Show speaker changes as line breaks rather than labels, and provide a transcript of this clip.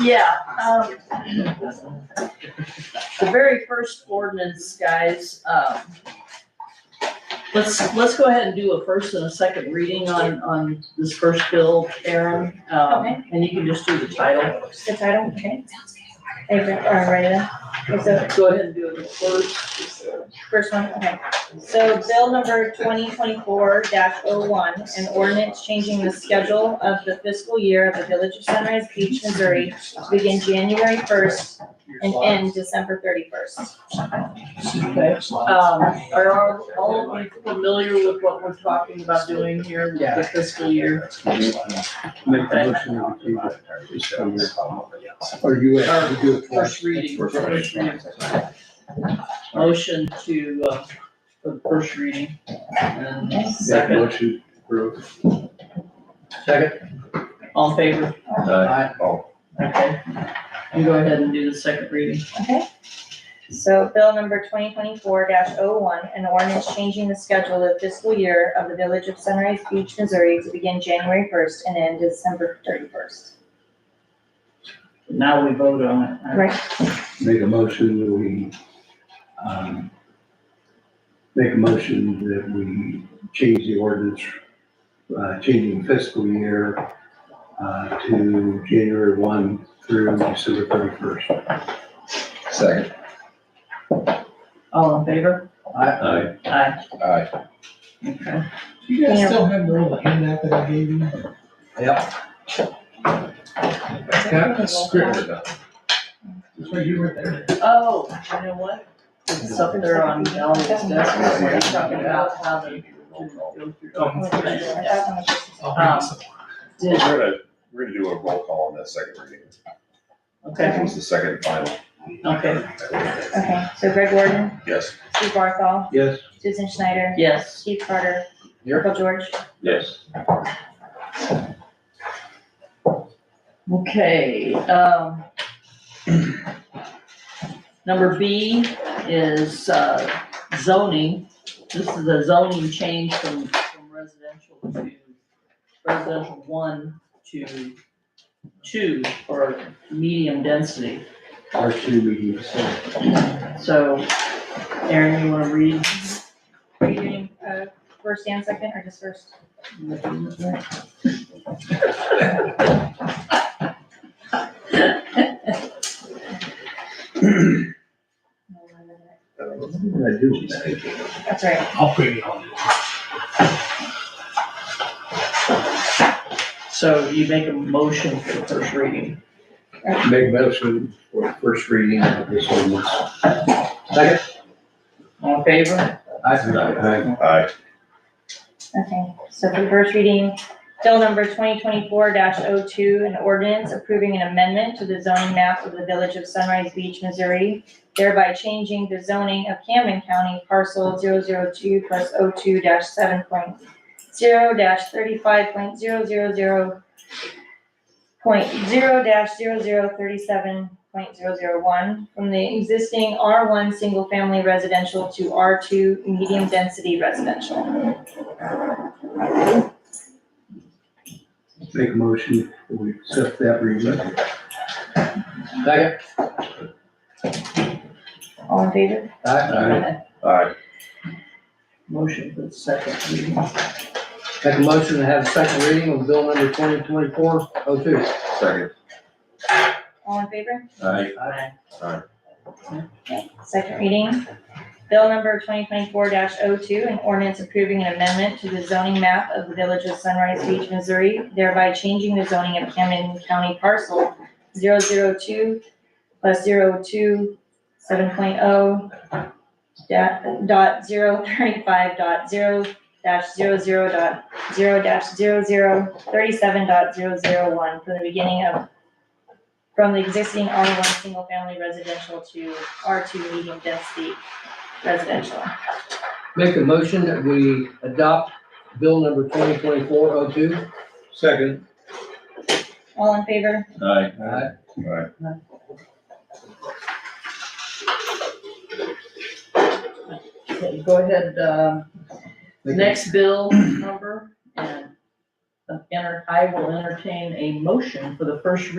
Yeah, um. The very first ordinance, guys, um. Let's, let's go ahead and do a first and a second reading on, on this first bill, Aaron,
Okay.
um, and you can just do the title.
The title, okay. Is it, all right, uh, is the
Go ahead and do it first.
first one, okay. So bill number twenty twenty-four dash oh one, an ordinance changing the schedule of the fiscal year of the Village of Sunrise Beach, Missouri to begin January first and end December thirty-first.
Okay. Um, are all, all of you familiar with what we're talking about doing here with the fiscal year?
Make a motion to keep it. Or you have to do it first.
First reading.
First reading.
Motion to, uh, for the first reading. And
That
second,
motion approved. Second.
all in favor?
Aye.
Okay. You go ahead and do the second reading.
So bill number twenty twenty-four dash oh one, an ordinance changing the schedule of fiscal year of the Village of Sunrise Beach, Missouri to begin January first and end December thirty-first.
Now we vote on it.
Right.
Make a motion that we, um, make a motion that we change the ordinance, uh, changing fiscal year, uh, to January one through December thirty-first.
Second.
All in favor?
Aye.
Aye.
Aye.
Okay.
You
Yeah.
guys still have the little handout that I gave you? Got a script, that's why you were there.
Oh, you know what? It's up there on Melanie's desk, where we're talking about how the.
That one was just-
I'll bring this up.
We're
Um, Did-
gonna, we're gonna do a roll call on that second reading.
Okay,
It was the second and final.
okay,
Okay, so Greg Warden,
Yes.
Steve Barthol,
Yes?
Susan Schneider,
yes.
Steve Carter,
Here.
Michael George.
Yes.
Okay, um. Number B is uh, zoning. This is a zoning change from, from residential to residential one to two or medium density.
Our two meetings.
So Aaron, you wanna read?
Are you doing, uh, first and second, or just first? That's right.
I'll bring it on.
So you make a motion for the first reading.
Make a motion for first reading of this ordinance.
All in favor?
Aye.
Aye.
Okay, so for the first reading, bill number twenty twenty-four 2 an ordinance approving an amendment to the zoning map of the village of Sunrise Beach, Missouri, thereby changing the zoning of Camden County parcel 002 plus oh two seven point zero thirty-five point zero zero zero point zero dash zero zero thirty-seven point zero zero one from the existing R one single-family residential to R two medium-density residential.
Make a motion, we accept that reading.
All in favor?
Aye.
Aye.
Motion for the second reading.
Make a motion to have a second reading of bill number twenty twenty-four oh two.
Second.
All in favor?
Aye.
Aye.
Second reading. Bill number twenty twenty-four 2 an ordinance approving an amendment to the zoning map of the village of Sunrise Beach, Missouri, thereby changing the zoning of Camden County parcel 002 plus zero two seven point oh dot, dot zero thirty-five dot zero dash zero zero dot zero dash zero zero thirty-seven dot zero zero one from the beginning of from the existing R one single family residential to R two medium density residential.
Make a motion that we adopt bill number twenty twenty-four oh two.
Second.
All in favor?
Aye.
Aye.
Aye.
Okay, go ahead, um,
Make a-
next bill number and uh, enter, I will entertain a motion for the first